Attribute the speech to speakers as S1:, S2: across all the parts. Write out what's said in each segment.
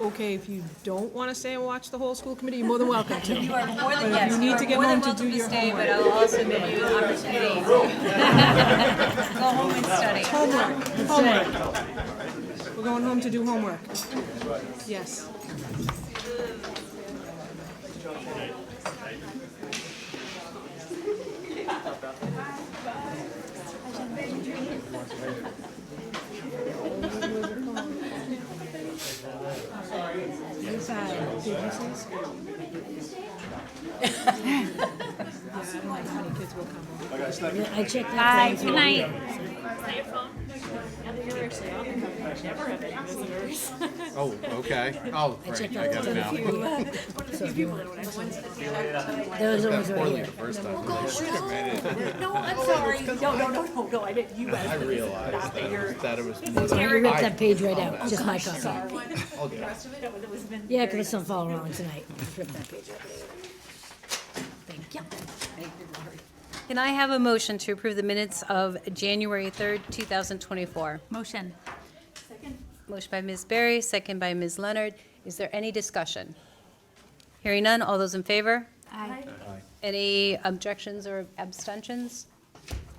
S1: okay if you don't want to stay and watch the whole school committee, you're more than welcome to.
S2: You are more
S1: But
S2: than, yes,
S1: you
S2: you
S1: need to
S2: are
S1: get
S2: more than
S1: home to
S2: welcome
S1: do
S2: to
S1: your
S2: stay, but I'll also give you an opportunity to go home and study.
S1: Homework, homework. We're going home to do homework. Yes. These are businesses. Yeah, I don't like how many kids will come.
S3: I checked that. Bye, good night.
S4: Oh, okay. Oh,
S3: I
S4: right,
S3: checked
S4: I
S3: out
S4: got it now.
S3: the one Those are the ones right
S4: That poorly
S3: here.
S4: the first time.
S2: No, I'm sorry. No, no, no, no, no, I meant you guys.
S4: I realized that it was, that it was more
S3: I
S4: than
S3: ripped that page right out, just my copy.
S4: I'll do.
S3: Yeah, 'cause it's not following along tonight. Ripped that page out. Thank you. Thank you, Lori.
S2: Can I have a motion to approve the minutes of January 3rd, 2024?
S5: Motion.
S2: Motion by Ms. Berry, second by Ms. Leonard. Is there any discussion? Hearing none, all those in favor?
S5: Aye.
S2: Any objections or abstentions?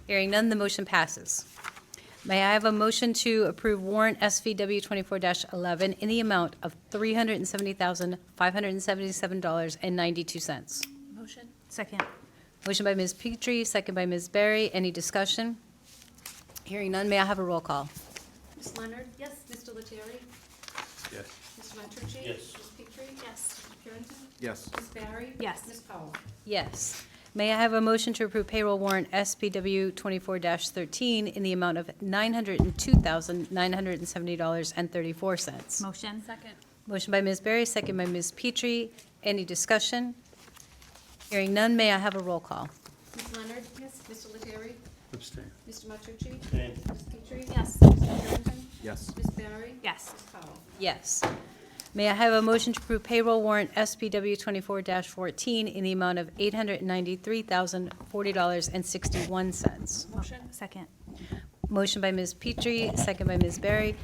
S2: Hearing none, the motion passes. May I have a motion to approve warrant SVW 24-11 in the amount of $370,577.92?
S5: Motion. Second.
S2: Motion by Ms. Petrie, second by Ms. Berry. Any discussion? Hearing none, may I have a roll call?
S6: Ms. Leonard? Yes. Mr. Lettieri? Yes. Mr. Montucci? Yes. Ms. Petrie? Yes. Mr. Purenton?
S4: Yes.
S6: Ms. Barry?
S5: Yes.
S6: Ms. Powell?
S2: Yes. May I have a motion to approve payroll warrant SPW 24-13 in the amount of $902,970.34?
S5: Motion. Second.
S2: Motion by Ms. Berry, second by Ms. Petrie. Any discussion? Hearing none, may I have a roll call?
S6: Ms. Leonard? Yes. Mr. Lettieri?
S7: Abstain.
S6: Mr. Montucci? Ms. Petrie? Yes. Mr. Purenton?
S4: Yes.
S6: Ms. Barry?
S5: Yes.
S6: Ms. Powell?
S2: Yes. May I have a motion to approve payroll warrant SPW 24-14 in the amount of $893,040.61?
S5: Motion. Second.
S2: Motion by Ms. Petrie, second by Ms. Berry.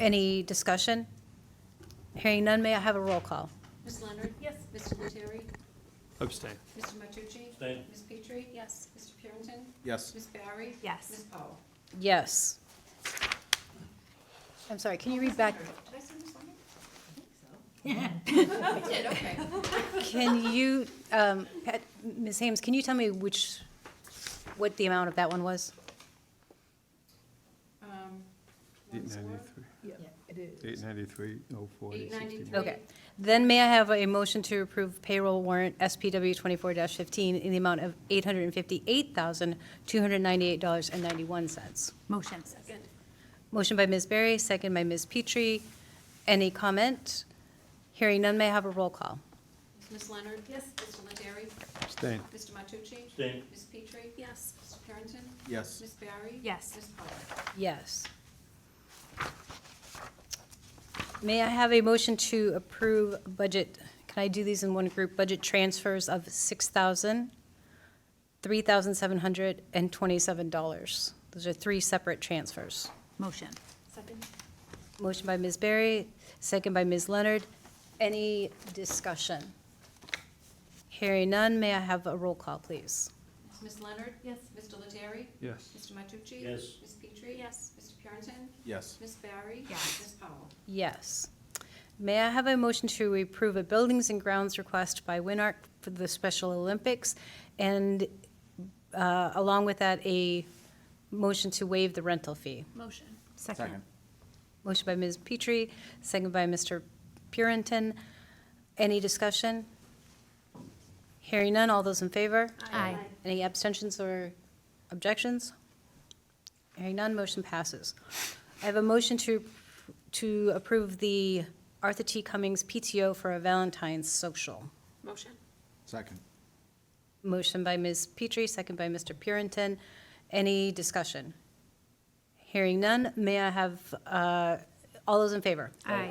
S2: Any discussion? Hearing none, may I have a roll call?
S6: Ms. Leonard? Yes. Mr. Lettieri?
S7: Abstain.
S6: Mr. Montucci? Ms. Petrie? Yes. Mr. Purenton?
S4: Yes.
S6: Ms. Barry?
S5: Yes.
S6: Ms. Powell?
S2: Yes. I'm sorry, can you read back,
S6: Did I say Ms. Leonard? I did, okay.
S2: can you, um, Pat- Ms. Hames, can you tell me which, what the amount of that one was?
S6: Um,
S7: Eight
S6: one score?
S7: ninety-three,
S1: It is.
S7: eight ninety-three, oh four.
S6: Eight ninety-three.
S2: Okay. Then may I have a motion to approve payroll warrant SPW 24-15 in the amount of $858,298.91?
S5: Motion.
S2: Motion by Ms. Berry, second by Ms. Petrie. Any comment? Hearing none, may I have a roll call?
S6: Ms. Leonard? Yes. Mr. Lettieri?
S7: Abstain.
S6: Mr. Matucci? Ms. Petrie? Yes. Mr. Purenton?
S4: Yes.
S6: Ms. Barry?
S5: Yes.
S6: Ms. Powell?
S2: Yes. May I have a motion to approve budget, can I do these in one group? Budget transfers of $6,000, $3,727. Those are three separate transfers.
S5: Motion.
S6: Second.
S2: Motion by Ms. Berry, second by Ms. Leonard. Any discussion? Hearing none, may I have a roll call, please?
S6: Ms. Leonard? Yes. Mr. Lettieri?
S7: Yes.
S6: Mr. Matucci?
S7: Yes.
S6: Ms. Petrie? Yes. Mr. Purenton?
S4: Yes.
S6: Ms. Barry?
S5: Yes.
S6: Ms. Powell?
S2: Yes. May I have a motion to approve a buildings and grounds request by Winark for the Special Olympics? And uh, along with that, a motion to waive the rental fee.
S5: Motion.
S4: Second.
S5: Second.
S2: Motion by Ms. Petrie, second by Mr. Purinton. Any discussion? Hearing none, all those in favor?
S5: Aye.
S2: Any abstentions or objections? Hearing none, motion passes. I have a motion to, to approve the Arthur T. Cummings PTO for a Valentine's social.
S6: Motion.
S4: Second.
S2: Motion by Ms. Petrie, second by Mr. Purinton. Any discussion? Hearing none, may I have, uh, all those in favor?
S5: Aye.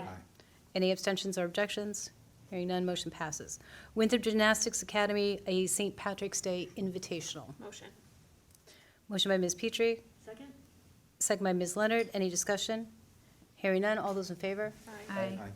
S2: Any abstentions or objections? Hearing none, motion passes. Winthrop Gymnastics Academy, a St. Patrick's Day Invitational.
S6: Motion.
S2: Motion by Ms. Petrie,
S6: Second.
S2: second by Ms. Leonard. Any discussion? Hearing none, all those in favor?
S6: Aye.
S5: Aye.
S4: Aye.